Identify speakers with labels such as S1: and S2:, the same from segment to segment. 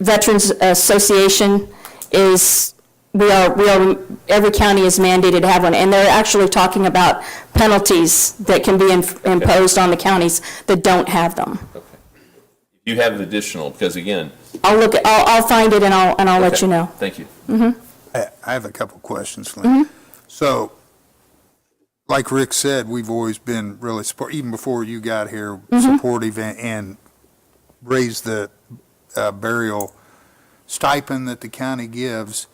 S1: Veterans Association is, we are, we are, every county is mandated to have one, and they're actually talking about penalties that can be in- imposed on the counties that don't have them.
S2: Okay. If You have additional, because again.
S1: I'll look, I'll, I'll find it and I'll, and I'll let
S2: okay,
S1: you know.
S2: Thank you.
S3: I I have a couple questions, Lynn. So, like Rick said, we've always been really support, even before you got here, supportive and- and raised the uh, burial stipend that the county gives.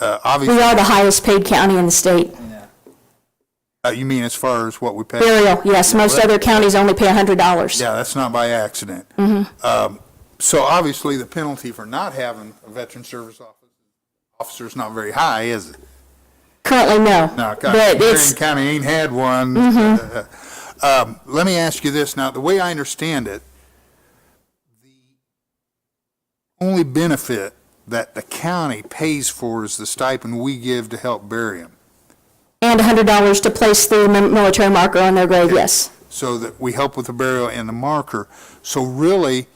S3: Uh,
S1: We
S3: Obviously,
S1: are the highest paid county in the state.
S3: uh, you mean as far as what we pay?
S1: Burial, yes, most other counties only pay hundred dollars.
S3: Yeah, that's not by accident. Um, So obviously, the penalty for not having a veteran service officer, officer's not very high, is it?
S1: Currently, no.
S3: No,
S1: But
S3: God, Marion
S1: it's, Mm-hmm.
S3: County ain't had one. Um, Let me ask you this, now, the way I understand it, the only benefit that the county pays for is the stipend we give to help bury them,
S1: and hundred dollars to place the mi- military marker on their grave, yes.
S3: so that we help with the burial and the marker. So really,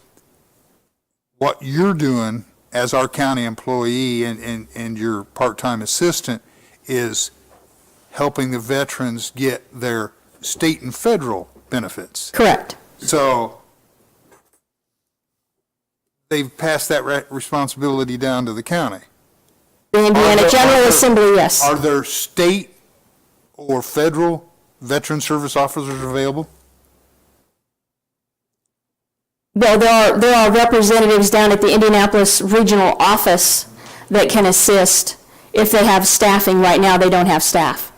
S3: what you're doing as our county employee and, and, and your part-time assistant is helping the veterans get their state and federal benefits.
S1: Correct.
S3: So they've passed that re- responsibility down to the county.
S1: The
S3: Are
S1: Indiana
S3: there- are
S1: General
S3: there-
S1: Assembly, yes.
S3: Are there state or federal veteran service officers available?
S1: Well, there are, there are representatives down at the Indianapolis Regional Office that can assist if they have staffing. Right now, they don't have staff.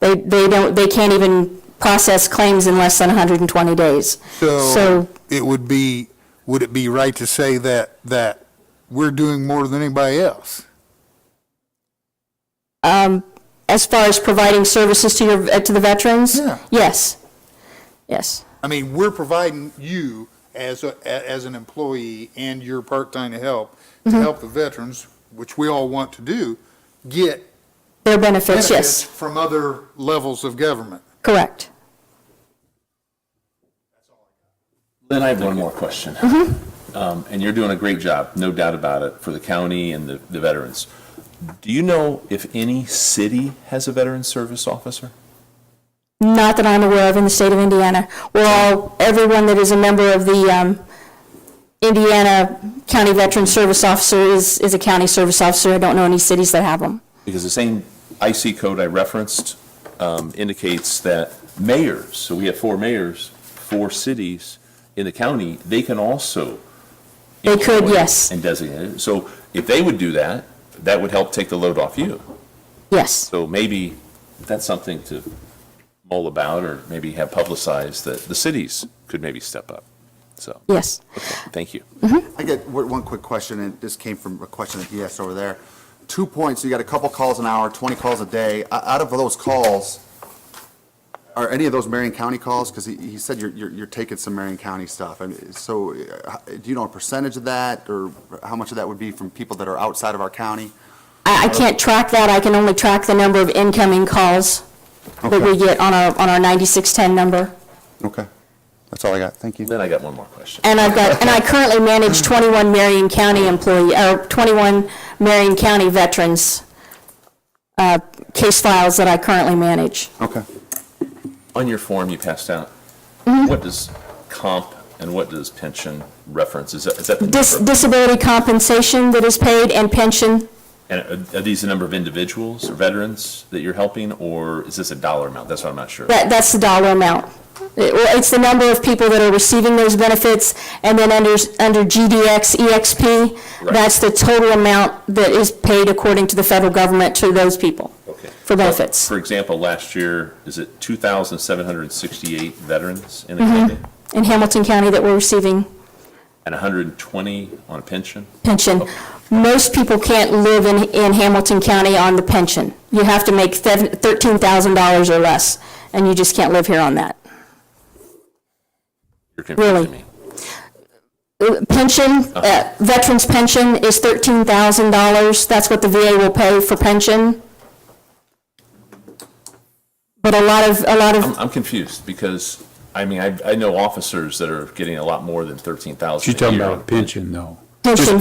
S1: They, they don't, they can't even process claims in less than 120 days. So,
S3: So it would be, would it be right to say that, that we're doing more than anybody else?
S1: as far as providing services to your, uh, to the veterans?
S3: Yeah.
S1: Yes. Yes.
S3: I mean, we're providing you as, a as an employee and your part-time help to
S1: Mm-hmm.
S3: help the veterans, which we all want to do, get
S1: Their benefits, yes.
S3: benefits from other levels of government.
S1: Correct.
S2: Then I have one more question.
S1: Mm-hmm.
S2: Um, And you're doing a great job, no doubt about it, for the county and the the veterans. Do you know if any city has a veteran service officer?
S1: Not that I'm aware of in the state of Indiana. We're all, everyone that is a member of the um, Indiana County Veteran Service Officer is, is a county service officer. I don't know any cities that have them.
S2: Because the same IC code I referenced um, indicates that mayors, so we have four mayors, four cities in the county, they can also.
S1: They could,
S2: employ
S1: yes.
S2: And designate it. So if they would do that, that would help take the load off you.
S1: Yes.
S2: So maybe that's something to mull about or maybe have publicized that the cities could maybe step up. So,
S1: Yes.
S2: thank you.
S4: I get one one quick question, and this came from a question at DS over there. Two points, you got a couple calls an hour, 20 calls a day. O- Out of those calls, are any of those Marion County calls? Because he he said you're- you're you're taking some Marion County stuff. I mean, So uh, h- do you know a percentage of that, or how much of that would be from people that are outside of our county?
S1: I, I can't track that. I can only track the number of incoming calls that we get on our, on our 9610 number.
S4: Okay, that's all I got, thank you.
S2: Then I got one more question.
S1: And I've got, and I currently manage 21 Marion County employee, or 21 Marion County veterans uh, case files that I currently manage.
S4: Okay.
S2: On your form you passed out,
S1: Mm-hmm.
S2: what does comp and what does pension reference? Is that, is that the
S1: Dis-
S2: number?
S1: Disability compensation that is paid and pension,
S2: And uh, are- are these the number of individuals or veterans that you're helping, or is this a dollar amount? That's what I'm not sure.
S1: that, that's the dollar amount. It- well, It's the number of people that are receiving those benefits, and then under, under GDX, EXP,
S2: Right.
S1: E that's the total amount that is paid according to the federal government to those people
S2: Okay.
S1: for benefits.
S2: For example, last year, is it 2,768 veterans in the
S1: Mm-hmm.
S2: county?
S1: In Hamilton County that we're receiving
S2: And 120 on a pension?
S1: pension. Most people can't live in, in Hamilton County on the pension. You have to make sev- $13,000 or less, and you just can't live here on that.
S2: You're confusing
S1: Really?
S2: me.
S1: Uh, Pension, uh, veterans' pension is $13,000. That's what the VA will pay for pension. But a lot of, a lot of,
S2: I'm confused because, I mean, I, I know officers that are getting a lot more than 13,000 a
S5: She's talking
S2: year.
S5: about a pension, though.
S1: Pension.